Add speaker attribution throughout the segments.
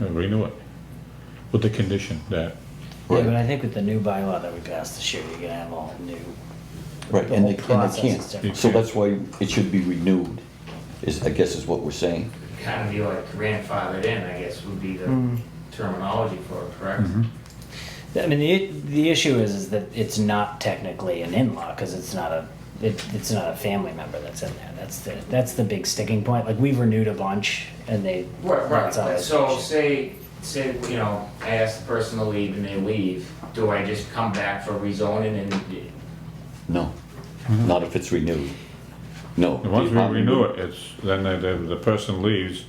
Speaker 1: and renew it with the condition that,
Speaker 2: Yeah,
Speaker 3: Right.
Speaker 2: but I think with the new bylaw that we passed this year, you're gonna have all new.
Speaker 3: Right,
Speaker 2: The
Speaker 3: and they,
Speaker 2: whole
Speaker 3: and they
Speaker 2: process is
Speaker 3: can't,
Speaker 2: different.
Speaker 3: so that's why it should be renewed, is, I guess is what we're saying.
Speaker 4: kind of be like grandfathered in, I guess would be the
Speaker 2: Hmm.
Speaker 4: terminology for it, correct?
Speaker 2: I mean, the, the issue is, is that it's not technically an in-law, cause it's not a, it, it's not a family member that's in there, that's the, that's the big sticking point, like, we've renewed a bunch, and they.
Speaker 4: Right,
Speaker 2: that's
Speaker 4: right,
Speaker 2: always the
Speaker 4: so
Speaker 2: issue.
Speaker 4: say, say, you know, I ask the person to leave and they leave, do I just come back for rezoning and?
Speaker 3: No, not if it's renewed. No.
Speaker 1: Mm-hmm.
Speaker 3: Um,
Speaker 1: once we renew it, it's, then the, the- the person leaves,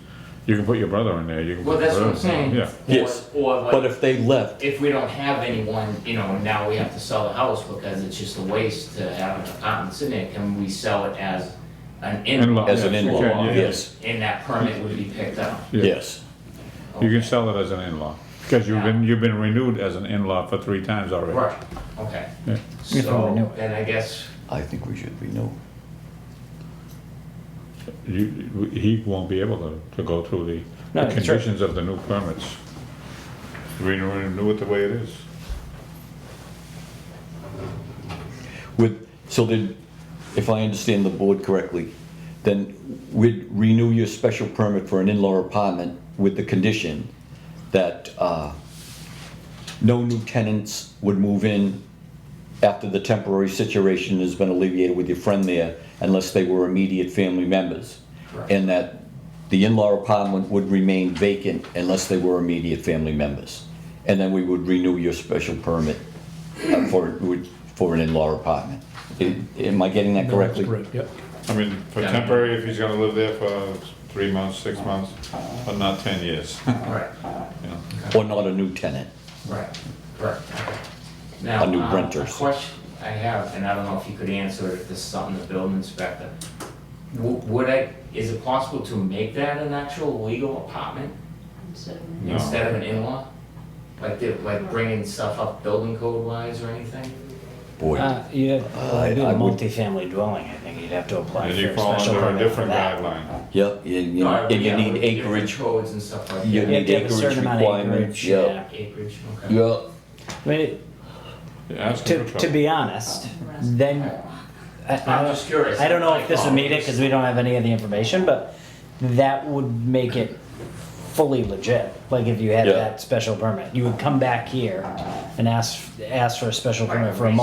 Speaker 1: you can put your brother in there, you can.
Speaker 4: Well,
Speaker 1: put your
Speaker 4: that's what
Speaker 1: brother
Speaker 4: I'm
Speaker 1: in
Speaker 4: saying.
Speaker 1: there,
Speaker 4: Or-
Speaker 3: Yes,
Speaker 4: Or
Speaker 3: But
Speaker 4: like,
Speaker 3: if they left,
Speaker 4: if we don't have anyone, you know, now we have to sell the house because it's just a waste to have an apartment sitting there, can we sell it as an
Speaker 1: In-law,
Speaker 4: in-law?
Speaker 3: as an
Speaker 1: Yeah,
Speaker 3: in-law,
Speaker 1: okay, yeah, yeah.
Speaker 3: yes,
Speaker 4: And that permit would be picked up?
Speaker 1: Yeah.
Speaker 3: yes.
Speaker 1: Yeah, you can sell it as an in-law, because you've been, you've been renewed as an in-law for three times already.
Speaker 4: Right, okay.
Speaker 1: Yeah.
Speaker 2: we renew
Speaker 4: So,
Speaker 2: it.
Speaker 4: then I guess
Speaker 3: I think we should renew.
Speaker 1: You, he won't be able to, to go through the,
Speaker 2: No,
Speaker 1: the
Speaker 2: that's right.
Speaker 1: conditions of the new permits. Renew, renew it the way it is.
Speaker 3: With, so then, if I understand the board correctly, then we'd renew your special permit for an in-law apartment with the condition that, uh, no new tenants would move in after the temporary situation has been alleviated with your friend there unless they were immediate family members.
Speaker 4: Correct.
Speaker 3: And that the in-law apartment would remain vacant unless they were immediate family members. And then we would renew your special permit uh, for, would- for an in-law apartment. Am am I getting that correctly?
Speaker 1: I mean, for
Speaker 4: Yeah.
Speaker 1: temporary, if he's gonna live there for three months, six months, but not ten years.
Speaker 4: Right,
Speaker 1: you know.
Speaker 3: Or not a new tenant?
Speaker 4: right, right. Now,
Speaker 3: A new
Speaker 4: uh,
Speaker 3: renter.
Speaker 4: A question I have, and I don't know if you could answer it, if this is something the building inspector. W- Would I, is it possible to make that an actual legal apartment
Speaker 1: No.
Speaker 4: instead of an in-law? Like, the- like bringing stuff up building code wise or anything?
Speaker 3: Boy,
Speaker 2: Uh, you
Speaker 3: I-
Speaker 2: it'd be a
Speaker 3: I would-
Speaker 2: multifamily dwelling, I think, you'd have to apply
Speaker 1: And
Speaker 2: for
Speaker 1: you
Speaker 2: a
Speaker 1: fall
Speaker 2: special
Speaker 1: under a
Speaker 2: permit for
Speaker 1: different
Speaker 2: that.
Speaker 1: guideline.
Speaker 3: yep, and you
Speaker 4: No, I-
Speaker 3: and you
Speaker 4: yeah,
Speaker 3: need
Speaker 4: with different
Speaker 3: acreage.
Speaker 4: Codes and stuff like
Speaker 3: You
Speaker 4: that.
Speaker 2: You have to have a
Speaker 3: Acreage
Speaker 2: certain amount of
Speaker 3: requirements,
Speaker 2: acreage,
Speaker 3: yeah.
Speaker 2: yeah.
Speaker 4: Acreage, okay.
Speaker 3: Yeah,
Speaker 2: I mean, it-
Speaker 1: Ask him
Speaker 2: to,
Speaker 1: for
Speaker 2: to
Speaker 1: trouble.
Speaker 2: be honest, then, I, I
Speaker 4: I'm
Speaker 2: don't
Speaker 4: just curious. Oh,
Speaker 2: I don't know if this would meet it because we don't have any of the information, but that would make it fully legit. Like if you had
Speaker 3: Yeah.
Speaker 2: that special permit, you would come back here and ask, ask for a special
Speaker 4: Right,
Speaker 2: permit for a
Speaker 4: rezone and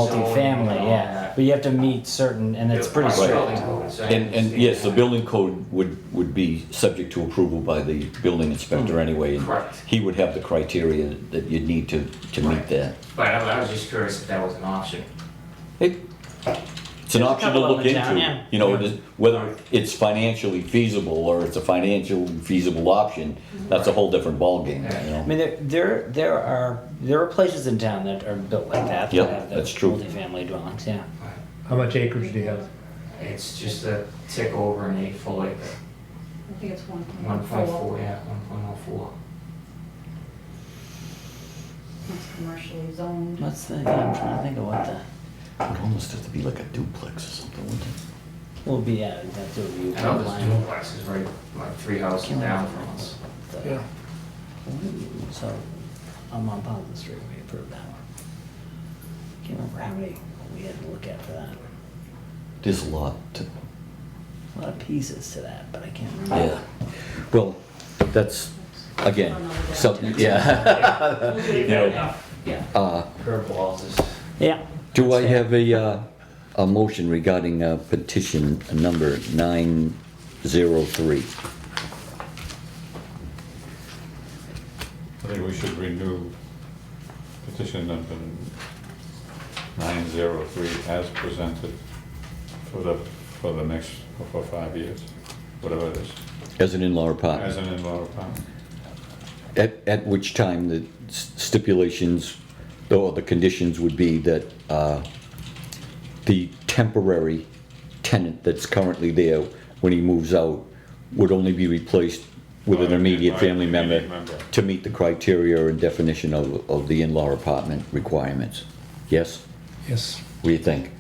Speaker 2: multifamily,
Speaker 4: all
Speaker 2: yeah.
Speaker 4: that.
Speaker 2: But you have to meet certain, and it's pretty
Speaker 4: Right,
Speaker 2: strict.
Speaker 4: building codes, I
Speaker 3: And, and
Speaker 4: understand
Speaker 3: yes, the
Speaker 4: that.
Speaker 3: building code would, would be subject to approval by the building inspector anyway. and
Speaker 4: Hmm. Correct.
Speaker 3: He would have the criteria that you'd need to, to meet
Speaker 4: Right.
Speaker 3: that.
Speaker 4: But I I was just curious if that was an option.
Speaker 3: It- It's an
Speaker 2: There's a
Speaker 3: option to
Speaker 2: couple
Speaker 3: look
Speaker 2: of them down, yeah.
Speaker 3: into, you know, it is- whether it's financially feasible or it's a financially feasible option, that's a whole different ballgame, you
Speaker 2: I
Speaker 3: know?
Speaker 2: mean, there, there, there are, there are places in town that are built like that. that
Speaker 3: Yeah,
Speaker 2: have the
Speaker 3: that's true.
Speaker 2: Multifamily dwellings, yeah.
Speaker 5: How much acreage do you have?
Speaker 4: It's just a tick over an eight full acre,
Speaker 6: I think it's one
Speaker 4: one
Speaker 6: point
Speaker 4: point
Speaker 6: four.
Speaker 4: four, yeah, one point oh four.
Speaker 6: It's commercially zoned.
Speaker 2: What's the, I'm trying to think of what the,
Speaker 3: It would almost have to be like a duplex or something, wouldn't it?
Speaker 2: will be, yeah, that's what we.
Speaker 4: I know this duplex is right, like three houses down from us.
Speaker 2: Yeah. So, I'm on Pond Street, we approved that one. Can't remember how many we had to look at for that.
Speaker 3: There's a lot to,
Speaker 2: A lot of pieces to that, but I can't remember.
Speaker 3: yeah. Well, that's, again, something, yeah.
Speaker 4: You've
Speaker 3: know.
Speaker 4: had enough
Speaker 2: Yeah.
Speaker 3: Uh,
Speaker 4: curb walls is,
Speaker 2: Yeah.
Speaker 3: Do I have a, uh, a motion regarding uh, petition number 903?
Speaker 1: I think we should renew petition number nine zero three as presented for the, for the next, for five years, whatever it is,
Speaker 3: As an in-law
Speaker 1: as
Speaker 3: apartment?
Speaker 1: an in-law apartment.
Speaker 3: At, at which time the s- stipulations, or the conditions would be that uh, the temporary tenant that's currently there, when he moves out, would only be replaced with an
Speaker 1: By-
Speaker 3: immediate
Speaker 1: by
Speaker 3: family member
Speaker 1: immediate member.
Speaker 3: to meet the criteria and definition of, of the in-law apartment requirements. Yes?
Speaker 5: Yes.
Speaker 3: What do you think?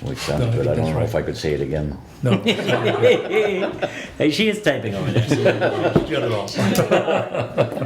Speaker 3: Well, it sounds
Speaker 5: No, I
Speaker 3: good.
Speaker 5: think
Speaker 3: I don't
Speaker 5: that's
Speaker 3: know if I
Speaker 5: right.
Speaker 3: could say it again.
Speaker 5: No.
Speaker 2: Hey, she is typing over there.
Speaker 5: Get it all.